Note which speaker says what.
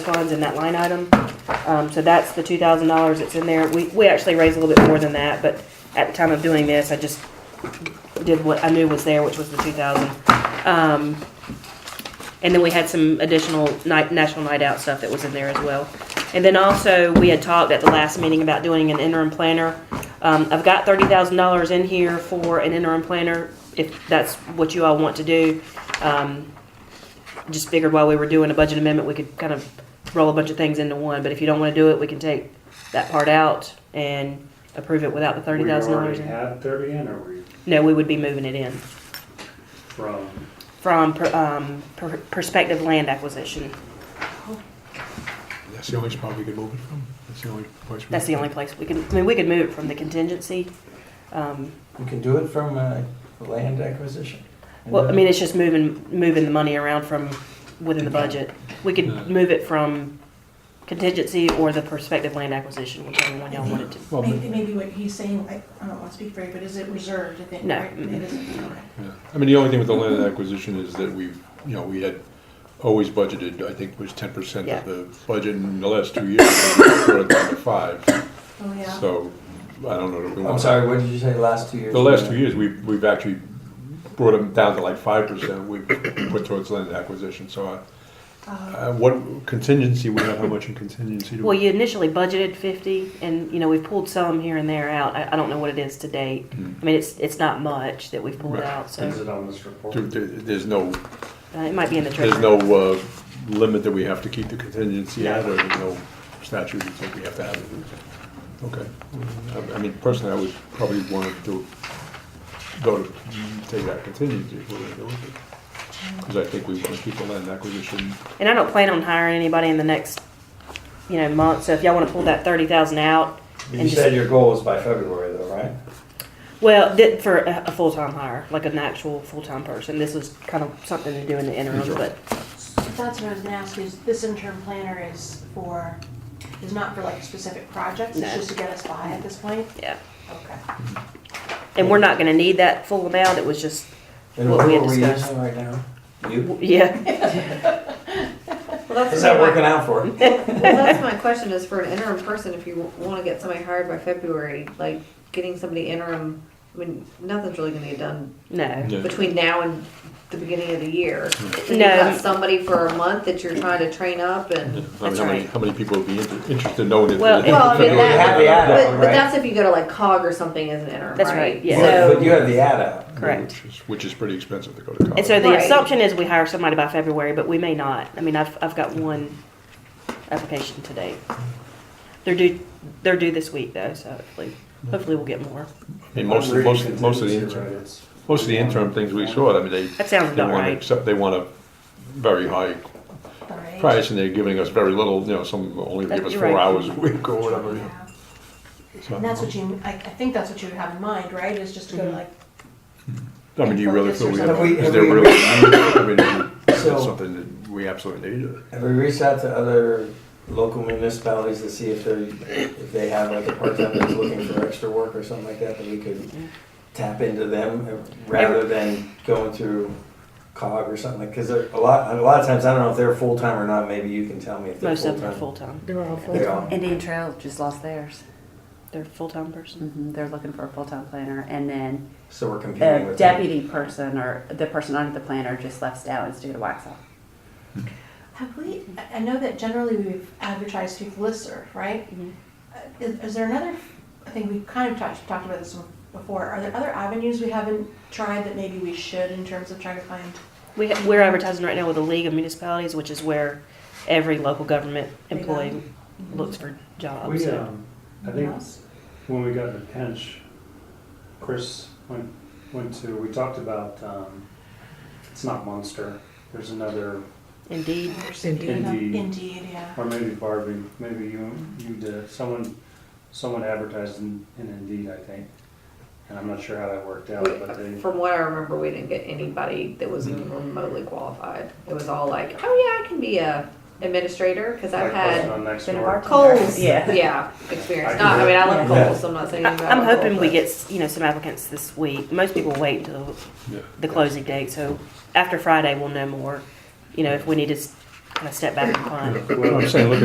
Speaker 1: funds in that line item. Um, so that's the two thousand dollars that's in there. We, we actually raised a little bit more than that, but at the time of doing this, I just did what I knew was there, which was the two thousand. Um, and then we had some additional night, national night out stuff that was in there as well. And then also, we had talked at the last meeting about doing an interim planner. Um, I've got thirty thousand dollars in here for an interim planner, if that's what you all want to do. Um, just figured while we were doing a budget amendment, we could kind of roll a bunch of things into one, but if you don't wanna do it, we can take that part out and approve it without the thirty thousand dollars.
Speaker 2: We already had thirty in, or we
Speaker 1: No, we would be moving it in
Speaker 2: from,
Speaker 1: from, per- um, per- prospective land acquisition.
Speaker 3: That's the only spot we could move it from? That's the only place? we-
Speaker 1: That's the only place we can, I mean, we could move it from the contingency. Um,
Speaker 4: You can do it from uh, land acquisition.
Speaker 1: well, I mean, it's just moving, moving the money around from within the budget. We
Speaker 3: Yeah.
Speaker 1: could move it from contingency or the prospective land acquisition, whichever one y'all wanted to.
Speaker 3: Well,
Speaker 5: Maybe,
Speaker 3: but-
Speaker 5: maybe what he's saying, I I don't want to speak for you, but is it reserved? I think,
Speaker 1: No. Mm-hmm.
Speaker 5: right? It isn't, okay.
Speaker 3: yeah. I mean, the only thing with the land acquisition is that we've, you know, we had always budgeted, I think, was ten percent
Speaker 1: Yeah.
Speaker 3: of the budget in the last two years. we brought it down to five,
Speaker 5: Oh, yeah.
Speaker 3: so I don't know. that we
Speaker 4: I'm
Speaker 3: wanna-
Speaker 4: sorry, what did you say, last two years?
Speaker 3: The last two years, we've, we've actually brought them down to like five percent we put towards land acquisition, so I,
Speaker 5: Uh,
Speaker 3: uh, what contingency, we have how much in contingency? do we-
Speaker 1: Well, you initially budgeted fifty and, you know, we've pulled some here and there out. I, I don't know what it is to date.
Speaker 3: Hmm.
Speaker 1: I mean, it's, it's not much that we've pulled
Speaker 3: Right.
Speaker 1: out, so
Speaker 2: is it on this report?
Speaker 3: There- there- There's no
Speaker 1: uh, it might be in the treasury.
Speaker 3: There's no uh, limit that we have to keep the contingency
Speaker 1: No.
Speaker 3: at, or there's no statute that says we have to have it? Okay. I- I mean, personally, I would probably want to go to take that contingency if we're gonna go with it. Because I think we want to keep the land acquisition.
Speaker 1: And I don't plan on hiring anybody in the next, you know, month, so if y'all wanna pull that thirty thousand out.
Speaker 4: You
Speaker 1: and
Speaker 4: said
Speaker 1: just
Speaker 4: your goal was by February though, right?
Speaker 1: Well, thi- for a, a full-time hire, like an actual full-time person, this was kind of something to do in the interim,
Speaker 3: Sure.
Speaker 1: but,
Speaker 5: so That's what I was gonna ask, is this interim planner is for, is not for like specific projects,
Speaker 1: No.
Speaker 5: it's just to get us by at this point?
Speaker 1: yeah.
Speaker 5: Okay.
Speaker 1: And we're not gonna need that full amount, it was just,
Speaker 4: And
Speaker 1: What we
Speaker 4: who
Speaker 1: had
Speaker 4: are we
Speaker 1: discussed.
Speaker 4: using right now? You?
Speaker 1: yeah,
Speaker 6: Well, that's
Speaker 4: Is that
Speaker 6: my-
Speaker 4: working out for you?
Speaker 6: Well, that's my question, is for an interim person, if you want to get somebody hired by February, like, getting somebody interim, I mean, nothing's really gonna get done
Speaker 1: no.
Speaker 3: Yeah.
Speaker 6: between now and the beginning of the year. So
Speaker 1: No.
Speaker 6: You've got somebody for a month that you're trying to train up
Speaker 3: I mean,
Speaker 6: and,
Speaker 3: How
Speaker 1: That's
Speaker 3: many,
Speaker 1: right.
Speaker 3: how many people would be inter- interested knowing that?
Speaker 1: Well,
Speaker 3: that-
Speaker 6: well, I mean,
Speaker 3: that-
Speaker 6: that-
Speaker 3: that-
Speaker 4: Yeah,
Speaker 6: but, but
Speaker 4: right.
Speaker 6: that's if you go to like COG or something as an interim,
Speaker 1: That's
Speaker 6: right?
Speaker 1: right, yeah.
Speaker 4: But but
Speaker 6: So,
Speaker 4: you have the ad out.
Speaker 1: Correct.
Speaker 3: Which is, which is pretty expensive to go to college.
Speaker 1: And so the
Speaker 6: Right.
Speaker 1: assumption is we hire somebody by February, but we may not. I mean, I've, I've got one application today. They're due, they're due this week though, so hopefully, hopefully we'll get more.
Speaker 3: I mean, most, of- most, most of the
Speaker 2: Contingency, right,
Speaker 3: interim,
Speaker 2: it's-
Speaker 3: most of the interim things we saw, I mean, they,
Speaker 1: That sounds
Speaker 3: they
Speaker 1: about
Speaker 3: want,
Speaker 1: right.
Speaker 3: except they want a very high
Speaker 5: All right.
Speaker 3: price and they're giving us very little, you know, some only give us
Speaker 1: You're
Speaker 3: four
Speaker 1: right.
Speaker 3: hours a week or whatever. you know.
Speaker 5: Yeah.
Speaker 3: So,
Speaker 5: And that's what you, I, I think that's what you would have in mind, right, is just to go to like,
Speaker 3: Mm-hmm. I mean, do you really feel we have,
Speaker 4: Have we-
Speaker 3: is
Speaker 4: have
Speaker 3: there
Speaker 4: we-
Speaker 3: really, I mean, is
Speaker 4: So-
Speaker 3: it something that we absolutely need?
Speaker 4: Have we reached out to other local municipalities to see if they're, if they have like a part-time that's looking for extra work or something like that, that we could tap into them uh, rather than going through COG or something like, cause there, a lot, a lot of times, I don't know if they're full-time or not, maybe you can tell me if they're
Speaker 1: Most of them are
Speaker 4: full-time.
Speaker 1: full-time.
Speaker 7: They're all
Speaker 4: They are.
Speaker 7: full-time.
Speaker 8: Indian Trail just lost theirs.
Speaker 1: They're a full-time person.
Speaker 8: hmm They're looking for a full-time planner, and then
Speaker 4: So we're competing
Speaker 8: the
Speaker 4: with them.
Speaker 8: deputy person or the person under the planner just left Stallings to go to Waxaw.
Speaker 5: have we, I, I know that generally we've advertised through Listserv, right?
Speaker 1: Mhm.
Speaker 5: Uh, Is, is there another, I think we've kind of talked, talked about this before, are there other avenues we haven't tried that maybe we should in terms of trying to find?
Speaker 1: We, ha- we're advertising right now with the League of Municipalities, which is where every local government employee looks for jobs.
Speaker 2: We,
Speaker 1: so.
Speaker 2: um, I think when we got in a pinch, Chris went, went to, we talked about, um, it's not Munster, there's another,
Speaker 1: Indeed,
Speaker 2: Indeed.
Speaker 5: Indeed, yeah.
Speaker 2: or maybe Barbie, maybe you, you did, someone, someone advertised in in Indeed, I think. And I'm not sure how that worked out, but they.
Speaker 6: We- From what I remember, we didn't get anybody that was even remotely qualified. It was all like, oh yeah, I can be a administrator, cause I've
Speaker 2: like
Speaker 6: had
Speaker 2: posted on Nextdoor.
Speaker 8: been a bar-
Speaker 6: Coles,
Speaker 8: Yeah.
Speaker 6: yeah, experience.
Speaker 2: I
Speaker 6: Not, I mean, I love
Speaker 4: Yeah.
Speaker 6: Coles. I'm not saying. anything
Speaker 1: I'm
Speaker 6: about
Speaker 1: hoping
Speaker 6: Kohl's,
Speaker 1: we
Speaker 6: but-
Speaker 1: get, s- you know, some applicants this week. Most people wait until
Speaker 3: Yeah.
Speaker 1: the closing date, so after Friday, we'll know more. You know, if we need to s- kind of step back and find.
Speaker 3: Well, I'm saying, look